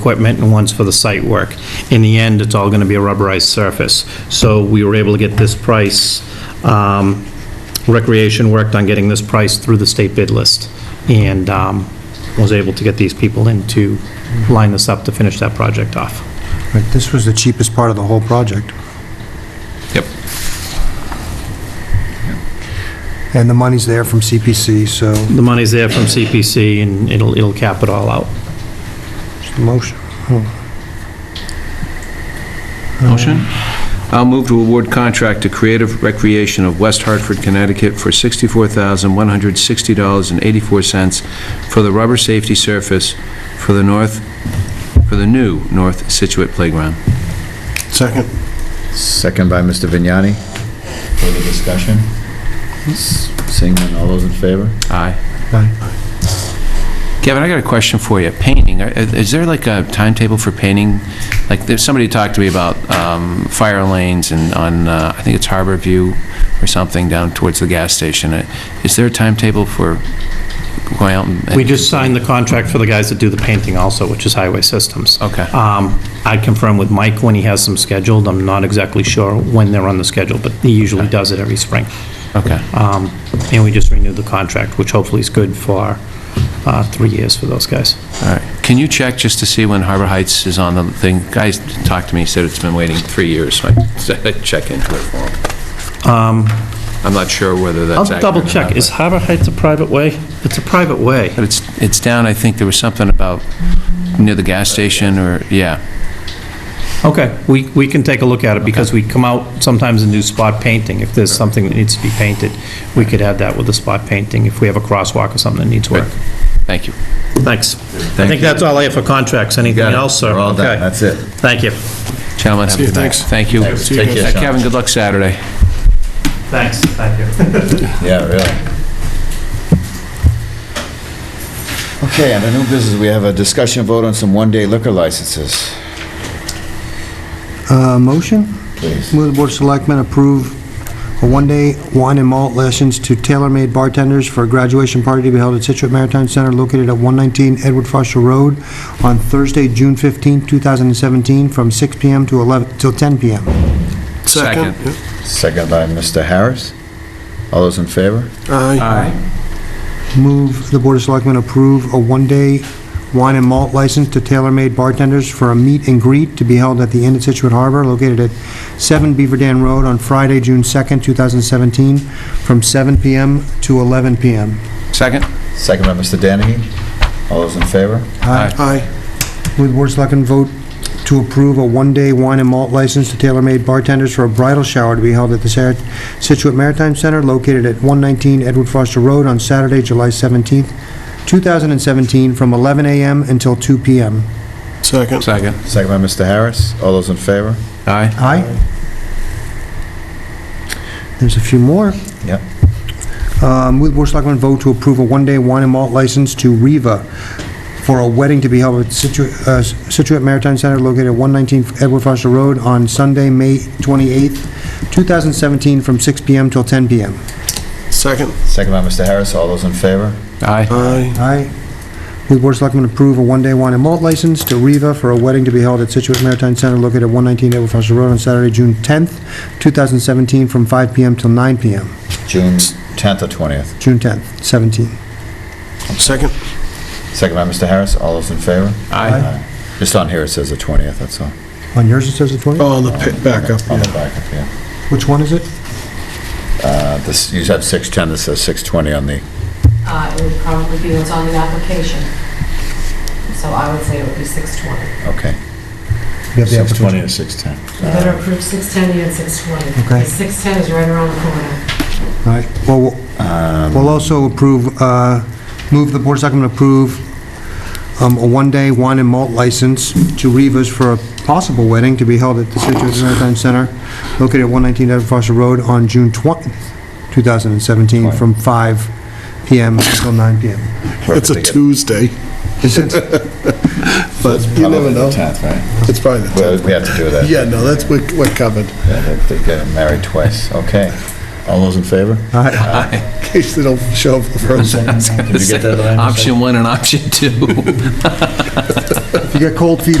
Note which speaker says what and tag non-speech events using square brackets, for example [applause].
Speaker 1: equipment and one's for the site work. In the end, it's all going to be a rubberized surface. So we were able to get this price, um, Recreation worked on getting this price through the state bid list and um, was able to get these people in to line this up to finish that project off.
Speaker 2: Right, this was the cheapest part of the whole project,
Speaker 3: Yep.
Speaker 2: and the money's there from CPC, so,
Speaker 1: The money's there from CPC and it'll, it'll cap it all out.
Speaker 2: just a motion.
Speaker 3: Motion? Uh, I'll move to award contract to Creative Recreation of West Hartford, Connecticut for $64,160.84 for the rubber safety surface for the north, for the new North Situate Playground.
Speaker 2: Second.
Speaker 4: Second by Mr. Vignani. Further discussion? S- Seeing none, all those in favor?
Speaker 3: Aye.
Speaker 2: Aye.
Speaker 3: Kevin, I got a question for you. Painting, uh, is there like a timetable for painting? Like, there's, somebody talked to me about um, fire lanes and on, uh, I think it's Harbor View or something down towards the gas station. Uh, Is there a timetable for going out and...
Speaker 1: We just signed the contract for the guys that do the painting also, which is Highway Systems.
Speaker 3: Okay.
Speaker 1: Um, I confirm with Mike when he has them scheduled. I'm not exactly sure when they're on the schedule, but he usually does it every spring.
Speaker 3: Okay,
Speaker 1: Um, And we just renewed the contract, which hopefully is good for uh, three years for those guys.
Speaker 3: all right. Can you check just to see when Harbor Heights is on the thing? Guys talked to me, said it's been waiting three years, so I said I'd check into it for them. I'm not sure whether
Speaker 1: Um, I'll
Speaker 3: that's accurate
Speaker 1: double
Speaker 3: or
Speaker 1: check.
Speaker 3: not,
Speaker 1: Is
Speaker 3: but-
Speaker 1: Harbor Heights a private way? It's a private way.
Speaker 3: But it's, it's down, I think there was something about near the gas station or, yeah.
Speaker 1: Okay, we, we can take a look at it because we come out sometimes and do spot painting. If there's something that needs to be painted, we could add that with the spot painting if we have a crosswalk or something that needs work.
Speaker 3: Thank you.
Speaker 1: Thanks. I
Speaker 4: Thank
Speaker 1: think
Speaker 4: you.
Speaker 1: that's all I have for contracts. Anything
Speaker 4: Got it.
Speaker 1: else, sir?
Speaker 4: We're all
Speaker 1: Okay.
Speaker 4: done, that's it.
Speaker 1: Thank you.
Speaker 3: Gentlemen, have a good night. Thank you.
Speaker 4: Thanks. Take care,
Speaker 3: Uh,
Speaker 4: Sean.
Speaker 3: Kevin, good luck Saturday.
Speaker 1: Thanks, thank you.
Speaker 4: Yeah, really. Okay, under new business, we have a discussion vote on some one-day liquor licenses.
Speaker 2: Uh, motion?
Speaker 4: Please.
Speaker 2: Move the Board of Selectmen approve a one-day wine and malt license to tailor-made bartenders for a graduation party to be held at Situate Maritime Center located at 119 Edward Foster Road on Thursday, June 15, 2017, from 6 PM to 11, till 10 PM.
Speaker 3: Second.
Speaker 4: Second by Mr. Harris. All those in favor?
Speaker 3: Aye.
Speaker 2: Move the Board of Selectmen approve a one-day wine and malt license to tailor-made bartenders for a meet and greet to be held at the Inn at Situate Harbor located at 7 Beaver Dam Road on Friday, June 2nd, 2017, from 7 PM to 11 PM.
Speaker 3: Second?
Speaker 4: Second by Mr. Danahy. All those in favor?
Speaker 3: Aye.
Speaker 2: Move the Board of Selectmen vote to approve a one-day wine and malt license to tailor-made bartenders for a bridal shower to be held at the Sar- Situate Maritime Center located at 119 Edward Foster Road on Saturday, July 17th, 2017, from 11 a.m. until 2 p.m.
Speaker 5: Second.
Speaker 3: Second.
Speaker 4: Second by Mr. Harris. All those in favor?
Speaker 3: Aye.
Speaker 2: Aye. There's a few more.
Speaker 4: Yep.
Speaker 2: Um, Move the Board of Selectmen vote to approve a one-day wine and malt license to Riva for a wedding to be held at Situ- uh, Situate Maritime Center located at 119 Edward Foster Road on Sunday, May 28th, 2017, from 6 PM till 10 PM.
Speaker 5: Second.
Speaker 4: Second by Mr. Harris. All those in favor?
Speaker 3: Aye.
Speaker 5: Aye.
Speaker 2: Aye. Move the Board of Selectmen approve a one-day wine and malt license to Riva for a wedding to be held at Situate Maritime Center located at 119 Edward Foster Road on Saturday, June 10th, 2017, from 5 PM till 9 PM.
Speaker 4: June 10th or 20th?
Speaker 2: June 10th, 17.
Speaker 5: Second.
Speaker 4: Second by Mr. Harris. All those in favor?
Speaker 3: Aye.
Speaker 4: Just on here, it says the 20th, that's all.
Speaker 2: On yours, it says the 20th?
Speaker 5: Oh, on the pa- backup,
Speaker 4: On the
Speaker 5: yeah.
Speaker 4: back, yeah.
Speaker 2: Which one is it?
Speaker 4: Uh, This, you have 610, this says 620 on the,
Speaker 6: Uh, It would probably be what's on the application. So I would say it would be 620.
Speaker 4: okay.
Speaker 2: You have the application.
Speaker 4: or 610?
Speaker 6: You better approve 610, you had 620.
Speaker 2: Okay.
Speaker 6: 610 is right around the corner.
Speaker 2: All right, well, we'll- we'll also approve, uh, move the Board of Selectmen approve um, a one-day wine and malt license to Rivas for a possible wedding to be held at the Situate Maritime Center located at 119 Edward Foster Road on June 20th, 2017, from 5 PM until 9 PM.
Speaker 5: It's a Tuesday,
Speaker 2: Is it?
Speaker 5: but you never know.
Speaker 4: 10th, right?
Speaker 5: It's probably the
Speaker 4: Well, we have to do that.
Speaker 5: 10th. Yeah, no, that's, we're we're covered, [laughs]
Speaker 4: Yeah, they- They're getting married twice, okay. All those in favor?
Speaker 2: All right.
Speaker 5: in case they don't show up for the first one.
Speaker 4: Did you get that, Lorraine?
Speaker 3: Option one and option two.
Speaker 5: You got cold feet